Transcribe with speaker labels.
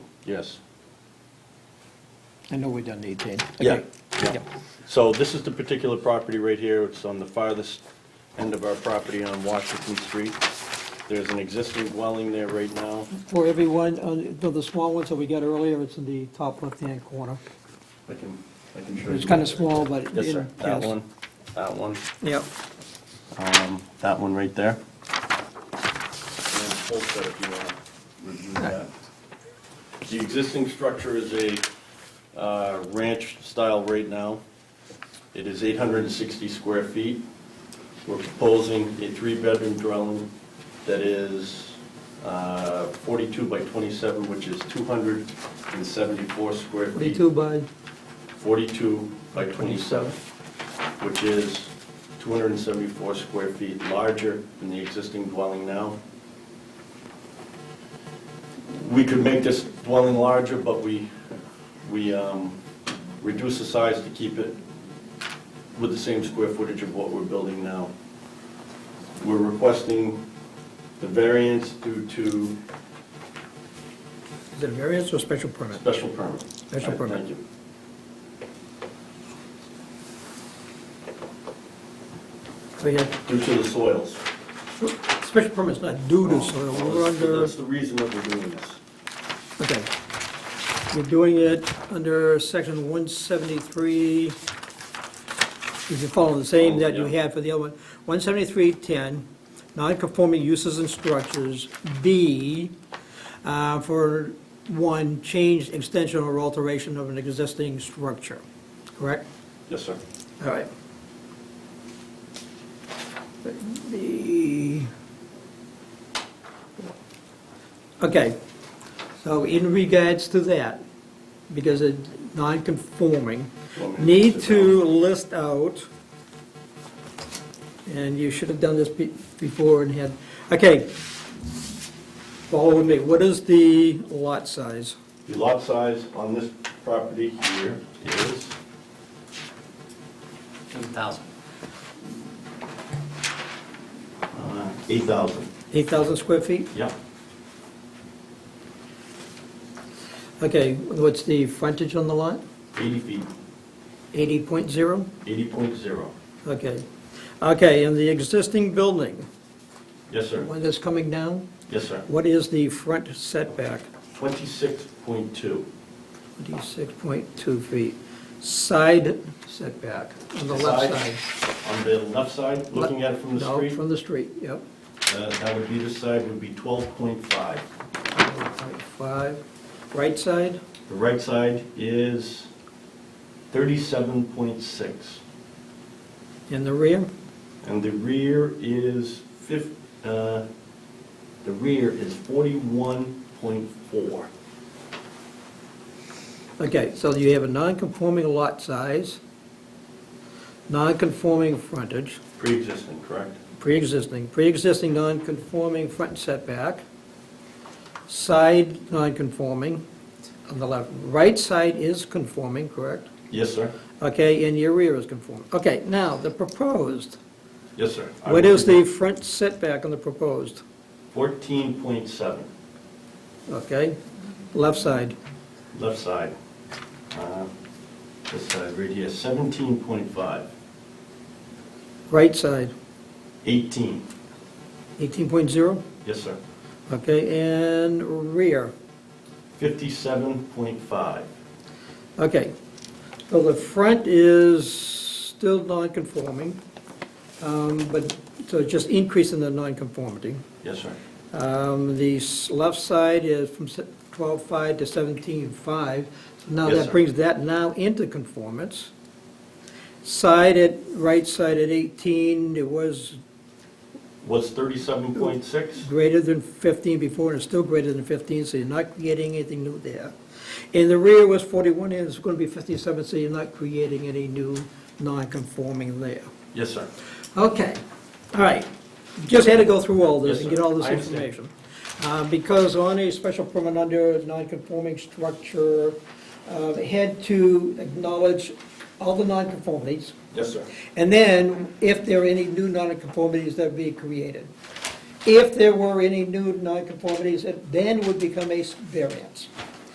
Speaker 1: Yes.
Speaker 2: I know we done 18.
Speaker 1: Yeah,
Speaker 2: Okay.
Speaker 1: yeah.
Speaker 2: Yep.
Speaker 1: So this is the particular property right here, it's on the farthest end of our property on Washington Street. There's an existing dwelling there right now.
Speaker 2: For everyone, uh, the the small ones that we got earlier, it's in the top left-hand corner.
Speaker 1: I can, I can show you.
Speaker 2: It's kind of small, but.
Speaker 1: Yes,
Speaker 2: in-
Speaker 1: sir, that
Speaker 2: yes.
Speaker 1: one, that one,
Speaker 2: Yep.
Speaker 1: um, that one right there. And then the full set if you want to review that. The existing structure is a uh, ranch style right now. It is 860 square feet. We're proposing a three-bedroom dwelling that is uh, 42 by 27, which is 274 square feet.
Speaker 2: 22 by,
Speaker 1: 42 by 27, which is 274 square feet larger than the existing dwelling now. We could make this dwelling larger, but we, we um, reduce the size to keep it with the same square footage of what we're building now. We're requesting the variance due to
Speaker 3: Is it a variance or special permit?
Speaker 1: special permit.
Speaker 3: Special permit.
Speaker 1: Thank you.
Speaker 3: So you have,
Speaker 1: Due to the soils.
Speaker 3: special permit's not due to soil, we're under,
Speaker 1: That's the reason that we're doing this.
Speaker 3: okay. You're doing it under section 173, if you follow the same that you
Speaker 1: Yeah.
Speaker 3: had for the other one. 173.10, non-conforming uses and structures, B, uh, for one, change, extension, or alteration of an existing structure, correct?
Speaker 1: Yes, sir.
Speaker 3: All right. The, okay, so in regards to that, because it's non-conforming,
Speaker 1: Want me to
Speaker 3: need
Speaker 1: sit
Speaker 3: to list out, and you should have done this be- before and had, okay, follow with me, what is the lot size?
Speaker 1: The lot size on this property here is,
Speaker 4: 2,000.
Speaker 1: uh, 8,000.
Speaker 3: 8,000 square feet?
Speaker 1: Yeah.
Speaker 3: Okay, what's the frontage on the lot?
Speaker 1: 80 feet,
Speaker 3: 80.0?
Speaker 1: 80.0.
Speaker 3: Okay. Okay, and the existing building,
Speaker 1: Yes,
Speaker 3: the
Speaker 1: sir.
Speaker 3: one that's coming down,
Speaker 1: Yes, sir.
Speaker 3: what is the front setback?
Speaker 1: 26.2.
Speaker 3: 26.2 feet. Side setback on the left
Speaker 1: Side?
Speaker 3: side.
Speaker 1: On the left side, looking at it from the
Speaker 3: No,
Speaker 1: street,
Speaker 3: from the street, yep.
Speaker 1: uh, that would be this side would be 12.5.
Speaker 3: 1.5. Right side,
Speaker 1: The right side is 37.6.
Speaker 3: in the rear,
Speaker 1: And the rear is fif, uh, the rear is 41.4.
Speaker 3: Okay, so you have a non-conforming lot size, non-conforming frontage,
Speaker 1: Pre-existing, correct?
Speaker 3: pre-existing, pre-existing non-conforming front setback, side non-conforming on the left, right side is conforming, correct?
Speaker 1: Yes, sir.
Speaker 3: Okay, and your rear is conforming. Okay, now, the proposed,
Speaker 1: Yes, sir. I
Speaker 3: what
Speaker 1: will
Speaker 3: is the
Speaker 1: do
Speaker 3: front setback on the proposed?
Speaker 1: that. 14.7,
Speaker 3: Okay, left side,
Speaker 1: left side. Uh, This side right here, 17.5,
Speaker 3: right side,
Speaker 1: 18.
Speaker 3: 18.0,
Speaker 1: Yes, sir.
Speaker 3: okay, and rear,
Speaker 1: 57.5.
Speaker 3: Okay, so the front is still non-conforming, um, but, so it's just increasing the non-conformity.
Speaker 1: Yes, sir.
Speaker 3: Um, The s- left side is from se- 12.5 to 17.5, now
Speaker 1: Yes,
Speaker 3: that
Speaker 1: sir.
Speaker 3: brings that now into conformance. Side at, right side at 18, it was
Speaker 1: Was 37.6?
Speaker 3: greater than 15 before, and it's still greater than 15, so you're not creating anything new there. And the rear was 41, and it's going to be 57, so you're not creating any new non-conforming there.
Speaker 1: Yes, sir.
Speaker 3: Okay, all right. Just had to go through all
Speaker 1: Yes,
Speaker 3: this and
Speaker 1: sir.
Speaker 3: get all this
Speaker 1: I understand.
Speaker 3: information. Uh, Because on a special permit under non-conforming structure, uh, they had to acknowledge all the non-conformities,
Speaker 1: Yes, sir.
Speaker 3: and then, if there are any new nonconformities that be created. If there were any new nonconformities, it then would become a variance.